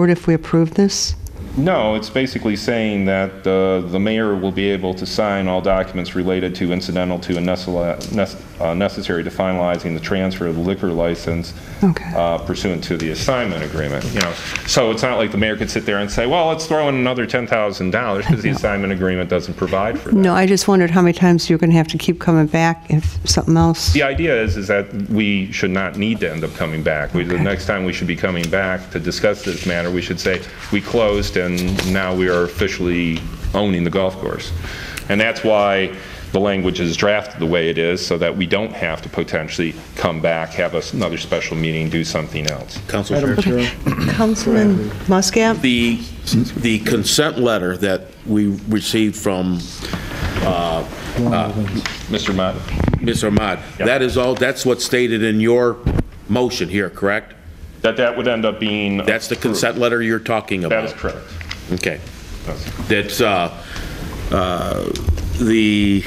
forward if we approve this? No, it's basically saying that uh, the mayor will be able to sign all documents related to incidental to and necessal- nec- uh, necessary to finalizing the transfer of the liquor license Okay. uh, pursuant to the assignment agreement, you know. So it's not like the mayor could sit there and say, well, let's throw in another $10,000 because the assignment agreement doesn't provide for that. No, I just wondered how many times you're going to have to keep coming back if something else. The idea is, is that we should not need to end up coming back. We- The Okay. next time we should be coming back to discuss this matter, we should say, we closed and now we are officially owning the golf course. And that's why the language is drafted the way it is, so that we don't have to potentially come back, have us- another special meeting, do something else. Council Chair. Councilman Muscat? The, the consent letter that we received from Mr. Mott? Ms. Ahmad, that is all, that's what's stated in your motion here, correct? That that would end up being... That's the consent letter you're talking about? That is correct. Okay. That's- That's, uh, uh, the,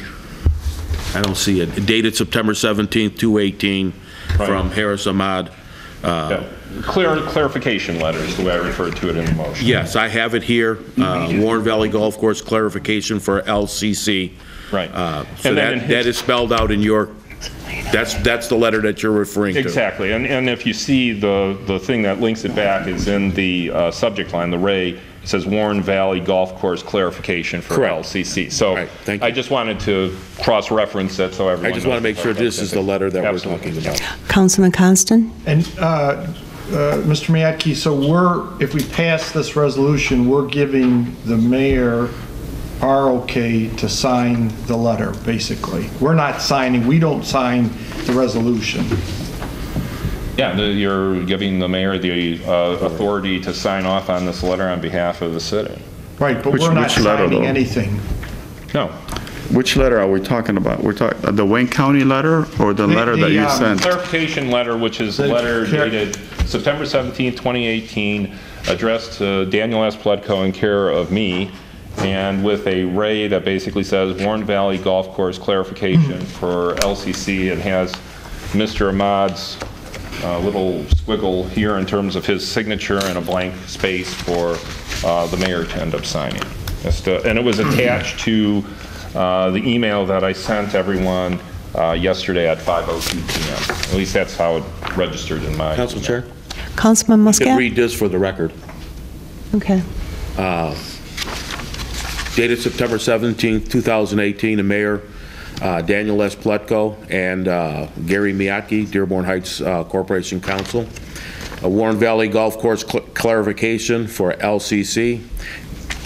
I don't see it, dated September 17th, 218, from Right. Harris Ahmad. Uh, yeah. Clear Clarification letter is the way I referred to it in the motion. Yes, I have it here, uh, Mm-hmm. Warren Valley Golf Course clarification for LCC. Right. Uh, So And then in that, his- that is spelled out in your, that's, that's the letter that you're referring to. Exactly, and, and if you see the, the thing that links it back is in the uh, subject line, the Ray, it says Warren Valley Golf Course clarification for Correct. LCC. So Right, thank you. I just wanted to cross-reference that so everyone I just want to knows make sure about that. this is the letter that we're Absolutely. talking about. Councilman Constant? And, uh, uh, Mr. Miyake, so we're, if we pass this resolution, we're giving the mayor our okay to sign the letter, basically. We're not signing, we don't sign the resolution. Yeah, the- you're giving the mayor the uh, authority to sign off on this letter on behalf of the city. Right, but Which- we're not which letter, signing though? anything. No, Which letter are we talking about? We're talking, the Wayne County letter or the The- letter that the, you um, sent? clarification letter, which is a The letter care- dated September 17, 2018, addressed to Daniel S. Pledko in care of me, and with a Ray that basically says Warren Valley Golf Course clarification for LCC, and has Mr. Ahmad's uh, little squiggle here in terms of his signature and a blank space for uh, the mayor to end up signing. That's the- And it was attached to uh, the email that I sent everyone uh, yesterday at 5:02 PM. At least that's how it registered in my... Council Chair? Councilman You can Muscat? read this for the record. Okay. Dated September 17th, 2018, the mayor, uh, Daniel S. Pletko, and uh, Gary Miyake, Dearborn Heights uh, Corporation Council. A Warren Valley Golf Course cl- clarification for LCC.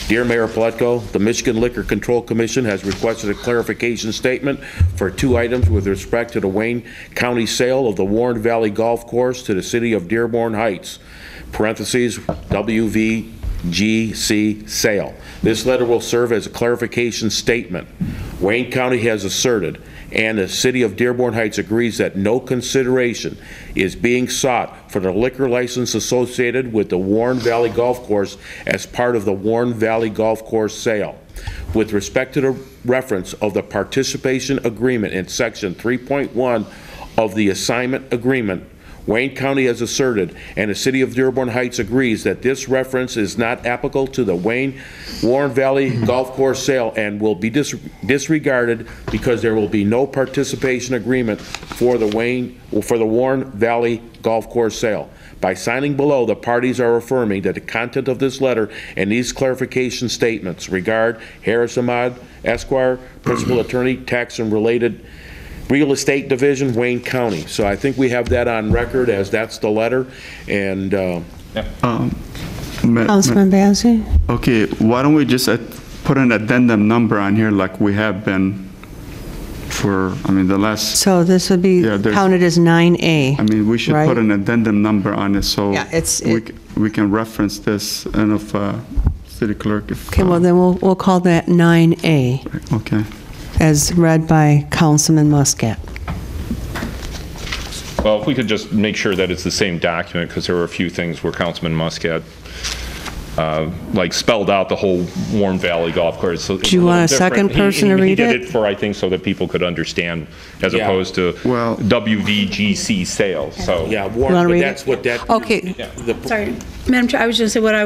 Dear Mayor Pletko, the Michigan Liquor Control Commission has requested a clarification statement for two items with respect to the Wayne County sale of the Warren Valley Golf Course to the city of Dearborn Heights, parentheses, WVGC sale. This letter will serve as a clarification statement. Wayne County has asserted, and the city of Dearborn Heights agrees that no consideration is being sought for the liquor license associated with the Warren Valley Golf Course as part of the Warren Valley Golf Course sale. With respect to the reference of the participation agreement in section 3.1 of the assignment agreement, Wayne County has asserted, and the city of Dearborn Heights agrees, that this reference is not applicable to the Wayne Warren Valley Golf Course sale and will be dis- disregarded because there will be no participation agreement for the Wayne, for the Warren Valley Golf Course sale. By signing below, the parties are affirming that the content of this letter and these clarification statements regard Harris Ahmad Esquire, Principal Attorney, Tax and Related Real Estate Division, Wayne County. So I think we have that on record as that's the letter, and uh, Um, Ma- ma- Councilman Bazey? Okay, why don't we just uh, put an addendum number on here like we have been for, I mean, the last, So this would be Yeah, there's- counted as 9A. I mean, we should Right. put an addendum number on it so Yeah, it's- we it- c- we can reference this and if, uh, city clerk, if. Okay, well, uh, then we'll, we'll call that 9A, Okay. as read by Councilman Muscat. Well, if we could just make sure that it's the same document, because there were a few things where Councilman Muscat uh, like spelled out the whole Warm Valley Golf Course. So it's Do you want little a second different. He- person to he- read He it? did it for, I think, so that people could understand, as Yeah. opposed to Well- WVGC sales, so. Yeah, You Warren, wanna but read that's it? Oh. what that. Okay. the- Sorry, Madam Chair, I was just gonna say what I